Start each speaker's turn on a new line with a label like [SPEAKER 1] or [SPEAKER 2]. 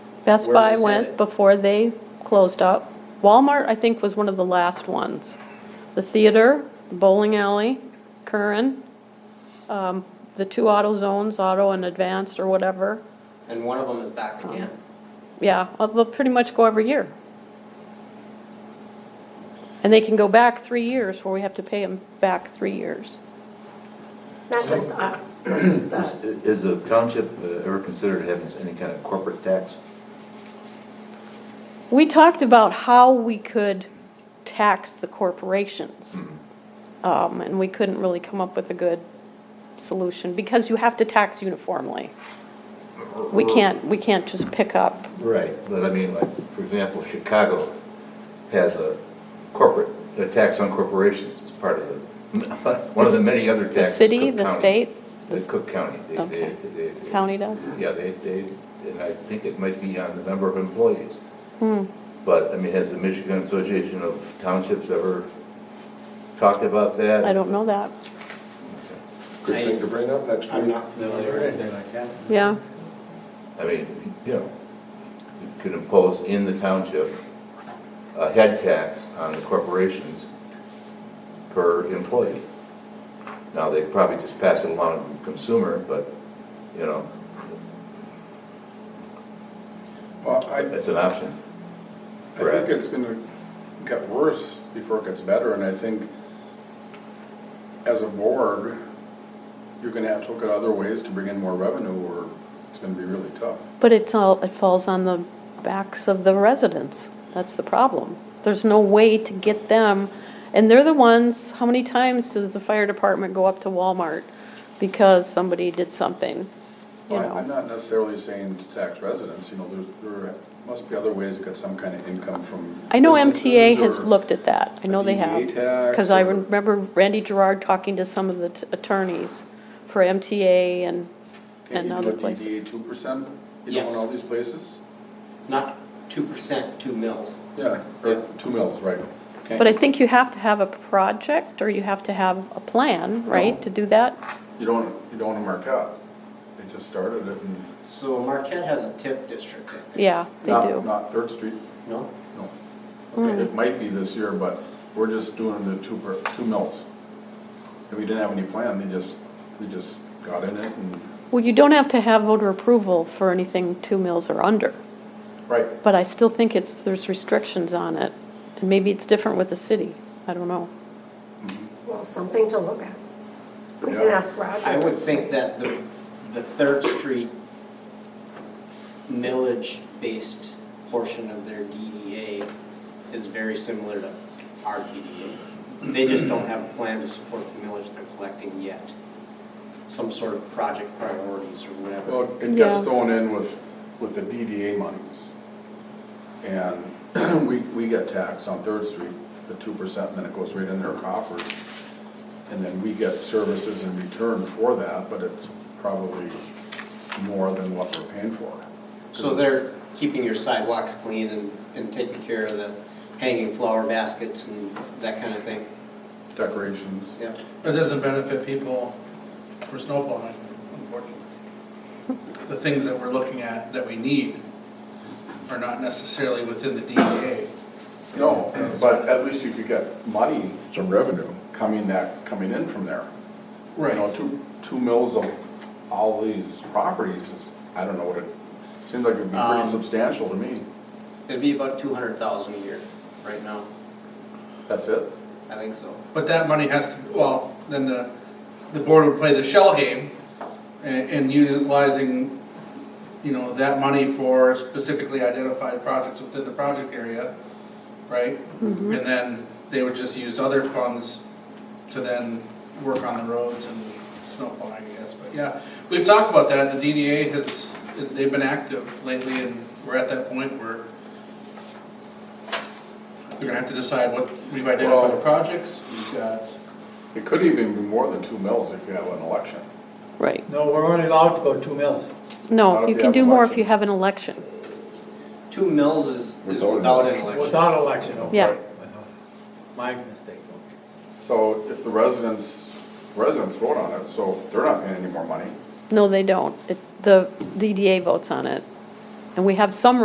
[SPEAKER 1] Best
[SPEAKER 2] Where's
[SPEAKER 1] Buy
[SPEAKER 2] this
[SPEAKER 1] went
[SPEAKER 2] at?
[SPEAKER 1] before they closed up. Walmart, I think, was one of the last ones. The theater, bowling alley, Curran, um, the two auto zones, auto and advanced or whatever.
[SPEAKER 2] And one of them is back again.
[SPEAKER 1] Yeah, well, they'll pretty much go every year. And they can go back three years where we have to pay them back three years.
[SPEAKER 3] Not just us.
[SPEAKER 4] Is
[SPEAKER 3] Stuff.
[SPEAKER 4] is the township uh, ever considered having any kind of corporate tax?
[SPEAKER 1] We talked about how we could tax the corporations. Um, and we couldn't really come up with a good solution, because you have to tax uniformly. We can't, we can't just pick up,
[SPEAKER 4] Right. But I mean, like, for example, Chicago has a corporate, a tax on corporations as part of the, one of the many other
[SPEAKER 1] the
[SPEAKER 4] taxes.
[SPEAKER 1] city,
[SPEAKER 4] Cook
[SPEAKER 1] the
[SPEAKER 4] County-
[SPEAKER 1] state,
[SPEAKER 4] The Cook County, they,
[SPEAKER 1] Okay.
[SPEAKER 4] they, they. they-
[SPEAKER 1] county does.
[SPEAKER 4] Yeah, they, they, and I think it might be on the number of employees.
[SPEAKER 1] Hmm.
[SPEAKER 4] But, I mean, has the Michigan Association of Townships ever talked about that?
[SPEAKER 1] I don't know that,
[SPEAKER 5] Good thing to bring up next week.
[SPEAKER 2] I'm not familiar with it.
[SPEAKER 1] yeah.
[SPEAKER 4] I mean, you know, you could impose in the township a head tax on the corporations per employee. Now, they probably just pass it along to the consumer, but, you know,
[SPEAKER 5] Well, I,
[SPEAKER 4] that's an option.
[SPEAKER 5] I think it's gonna get worse before it gets better, and I think as a board, you're gonna have to look at other ways to bring in more revenue, or it's gonna be really tough.
[SPEAKER 1] But it's all, it falls on the backs of the residents. That's the problem. There's no way to get them, and they're the ones, how many times does the fire department go up to Walmart because somebody did something? You
[SPEAKER 5] Well, I- I'm
[SPEAKER 1] know,
[SPEAKER 5] not necessarily saying to tax residents, you know, there's, there must be other ways to get some kind of income from.
[SPEAKER 1] I know
[SPEAKER 5] businesses
[SPEAKER 1] MTA has
[SPEAKER 5] or-
[SPEAKER 1] looked at that. I know they have.
[SPEAKER 5] DDA tax
[SPEAKER 1] Cause I
[SPEAKER 5] or-
[SPEAKER 1] remember Randy Gerard talking to some of the t- attorneys for MTA and,
[SPEAKER 5] Can't
[SPEAKER 1] and
[SPEAKER 5] you do
[SPEAKER 1] other
[SPEAKER 5] a
[SPEAKER 1] places.
[SPEAKER 5] DDA two percent, you know,
[SPEAKER 2] Yes.
[SPEAKER 5] in all these places?
[SPEAKER 2] Not two percent, two mils.
[SPEAKER 5] Yeah,
[SPEAKER 2] Yeah.
[SPEAKER 5] or two mills, right. Can't
[SPEAKER 1] But I
[SPEAKER 5] you-
[SPEAKER 1] think you have to have a project or you have to have a plan, right, to do that?
[SPEAKER 5] You don't, you don't want to mark out. They just started it and.
[SPEAKER 2] So Marquette has a TIF district, I think.
[SPEAKER 1] Yeah, they
[SPEAKER 5] Not-
[SPEAKER 1] do. Mm.
[SPEAKER 5] Not Third Street,
[SPEAKER 2] no?
[SPEAKER 5] no. Okay, It might be this year, but we're just doing the two, per- two mills. And we didn't have any plan, they just, we just got in it and,
[SPEAKER 1] Well, you don't have to have voter approval for anything two mills or under,
[SPEAKER 5] right,
[SPEAKER 1] but I still think it's, there's restrictions on it. And maybe it's different with the city, I don't know.
[SPEAKER 3] Well, something to look at. We can
[SPEAKER 5] Yeah.
[SPEAKER 3] ask Roger.
[SPEAKER 2] I would think that the, the Third Street millage-based portion of their DDA is very similar to our DDA. They just don't have a plan to support the millage they're collecting yet. Some sort of project priorities or whatever.
[SPEAKER 5] well, it gets
[SPEAKER 1] Yeah.
[SPEAKER 5] thrown in with, with the DDA monies. And we, we get taxed on Third Street, the two percent, and then it goes right in their coffers. And then we get services in return for that, but it's probably more than what we're paying for.
[SPEAKER 2] So they're keeping your sidewalks clean and, and taking care of the hanging flower baskets and that kind of thing,
[SPEAKER 5] Decorations.
[SPEAKER 2] yeah.
[SPEAKER 6] That doesn't benefit people for snow plowing, unfortunately. The things that we're looking at that we need are not necessarily within the DEA.
[SPEAKER 5] No, but at least you could get money. Some revenue. Coming that, coming in from there. You know, two, two mills of all these properties is, I don't know what it, seems like it'd be
[SPEAKER 2] Um,
[SPEAKER 5] pretty substantial to me.
[SPEAKER 2] It'd be about two hundred thousand a year right now,
[SPEAKER 5] That's it?
[SPEAKER 2] I think so.
[SPEAKER 6] But that money has to, well, then the, the board would play the shell game and, and utilizing, you know, that money for specifically identified projects within the project area, right? And then they would just use other funds to then work on the roads and snow plowing, I guess, but yeah. We've talked about that, the DDA has, they've been active lately and we're at that point where they're gonna have to decide what, we've
[SPEAKER 5] Well-
[SPEAKER 6] identified projects, we've got
[SPEAKER 5] It could even be more than two mills if you have an election.
[SPEAKER 1] Right.
[SPEAKER 7] No, we're only allowed to go two mills.
[SPEAKER 1] No,
[SPEAKER 5] Not if
[SPEAKER 1] you
[SPEAKER 5] you
[SPEAKER 1] can
[SPEAKER 5] have
[SPEAKER 1] do
[SPEAKER 5] an
[SPEAKER 1] more if
[SPEAKER 5] election.
[SPEAKER 1] you have an election.
[SPEAKER 2] Two mills is, is
[SPEAKER 5] Without an
[SPEAKER 2] without an
[SPEAKER 5] election.
[SPEAKER 2] election.
[SPEAKER 7] Without election, okay.
[SPEAKER 1] Yeah.
[SPEAKER 7] My mistake.
[SPEAKER 5] So if the residents, residents vote on it, so they're not paying any more money.
[SPEAKER 1] No, they don't. It, the DDA votes on it. And we have some